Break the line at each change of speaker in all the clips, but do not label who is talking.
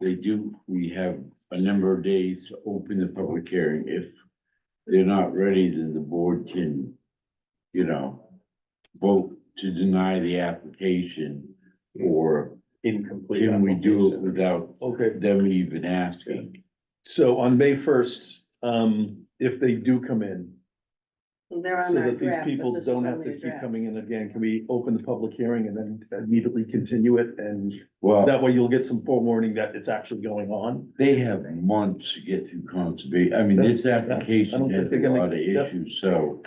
they do, we have a number of days to open the public hearing. If they're not ready, then the board can, you know, vote to deny the application or
Incomplete.
can we do it
application.
without
Okay,
them even asking?
so on May first, um, if they do come in,
Well, They're on
so
our
that these
draft, but
people
this is
don't have
only
to
a
keep
draft.
coming in again, can we open the public hearing and then immediately continue it? And
Well,
that way you'll get some forewarning that it's actually going on.
they have months to get through conservation. I mean, this application
think
has a
they're gonna-
lot of
yeah.
issues, so,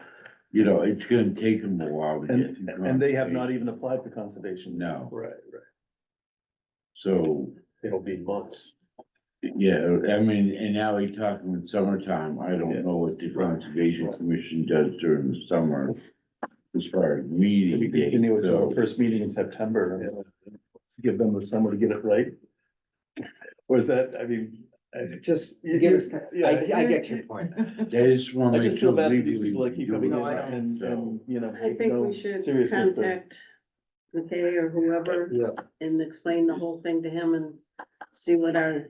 you know, it's gonna take them a while to get
And,
through.
and they have not
conservation.
even applied for conservation.
No.
Right, right.
So
It'll be months.
Yeah, I mean, and now we talking with summertime, I
Yeah.
don't know what the
Right.
conservation
Right.
commission does during the summer. As far as meeting dates,
Continue it to our
so,
first meeting in September. and Give them the summer to get it right. Or is that, I mean. I-
Just
You-
give
you-
us, ti-
yeah,
I, I get
you-
your point.
I just
I
wanna
just
make
feel
sure
bad for these
legally
people
we
that
can
keep
do
coming in
No, I
it.
and,
So,
and, you know.
I think
no
we should
serious with the-
contact McKay or whoever
Yeah.
and explain the whole thing to him and see what our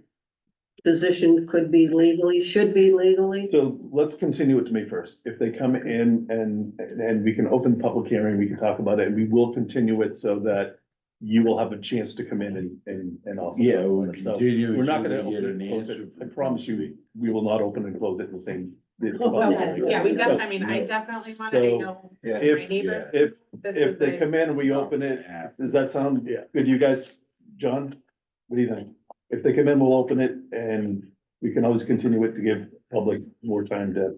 position could be legally, should be legally.
So let's continue it to May first. If they come in and, and we can open the public hearing, we can talk about it, and we will continue it so that you will have a chance to come in and, and, and also. talk
Yeah,
about
we'll
it. So
continue.
We're not
until
gonna
we get
open
an
and close
answer
it. I
from-
promise you, we will not open and close it in the same. the
Well,
public hearing.
Yeah, we
So
definitely, I mean, I
no.
definitely want
So,
to know
Yeah.
my
If,
neighbors.
if,
This
if
is
they
a-
come in and we open it, does that sound good to you guys? John, what do you think? If they come in, we'll open it and we can always continue it to give public more time to,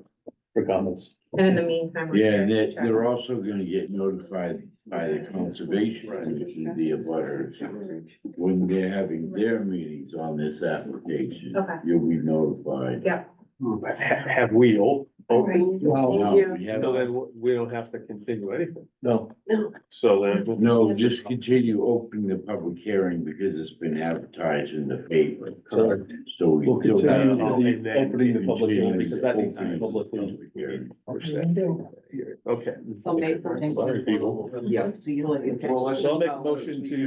for comments.
And in the meantime. we're
Yeah,
here
and
to
they're,
chat.
they're also gonna get notified by the conservation
Right.
commission, the abutters when they're having their meetings on this application.
Okay.
You'll be notified.
Have we all?
No,
Yeah.
we haven't.
we don't have to continue anything. No.
No.
So then.
No, just continue opening the public hearing because it's been advertised in the paper.
So
So we
we'll
still got.
continue to the opening the public hearing, because that needs to be publicly. Okay.
So May first.
Sorry, people.
Yeah.
So I'll make a motion to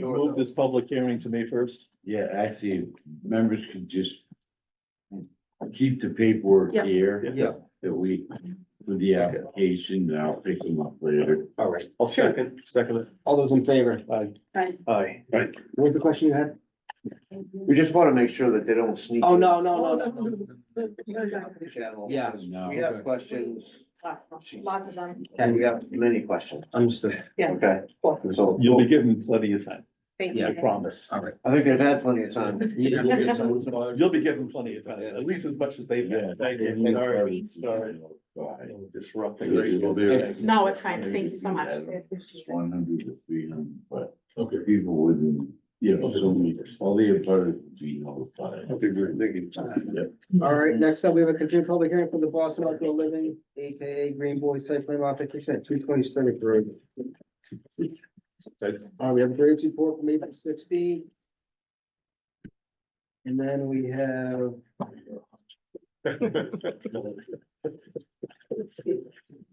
move this public hearing to May first.
Yeah, actually, members could just keep the paperwork
Yeah.
here
Yeah,
that we, for the application, and I'll pick them up later.
all right.
I'll second, second it.
All those in favor?
Aye.
Aye.
Aye.
Right. What was the question you had?
We just wanna make sure that they don't sneak.
Oh,
in.
no, no, no, no. Yeah.
No.
We have questions,
Lots of them.
and we have many questions,
Understood.
okay? So,
You'll be given plenty of time,
Thank
I
you.
promise.
All right.
I think they've had plenty of time.
You'll be given plenty of time, at least as much as they've
Yeah.
had. Thank you. Sorry, sorry. Disrupting.
No, it's fine. Thank you so much. I appreciate it.
One hundred to three hundred, but
Okay.
people wouldn't, you know, so many, all the abutters would be notified.
All right, next up, we have a continued public hearing for the Boston Outdoor Living, AKA Green Boy Site Plan Modification at two twenty Stony Road. All right, we have a Graves report from April sixteen. And then we have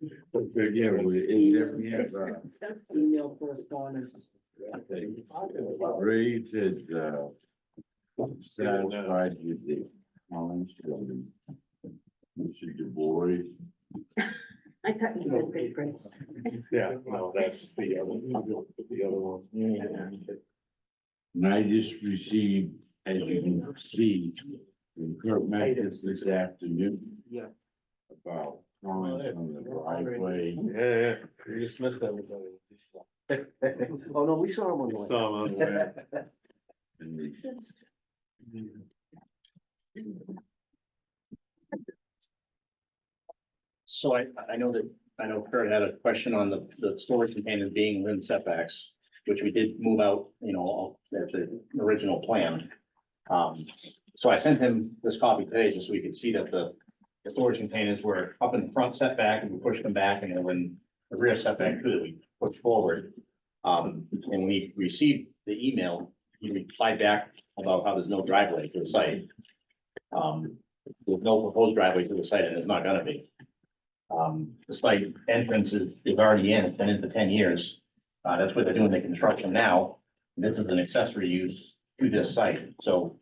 Yeah, we, it- we have, uh,
email correspondence.
uh, Ray did, uh, satisfied with the Collins building. Mr. DeBois,
I thought you said big grades.
Yeah, no, that's the other, the other one.
and I just received, as you can see, from Kurt Metcalf this afternoon.
Yeah.
About comments on the driveway.
Yeah, yeah, you just missed that one.
Oh, no, we saw him on the way.
Saw him on the way.
and the
So I, I know that, I know Kurt had a question on the, the storage container being rim setbacks, which we did move out, you know, at the original plan. Um, so I sent him this copy today just so we could see that the, the storage containers were up in the front setback and we pushed them back and then when the rear setback too, that we pushed forward. Um, and we received the email, he replied back about how there's no driveway to the site. Um, there's no proposed driveway to the site and there's not gonna be. Um, the site entrance is, is already in, it's been in for ten years. Uh, that's what they're doing the construction now. This is an accessory use to this site, so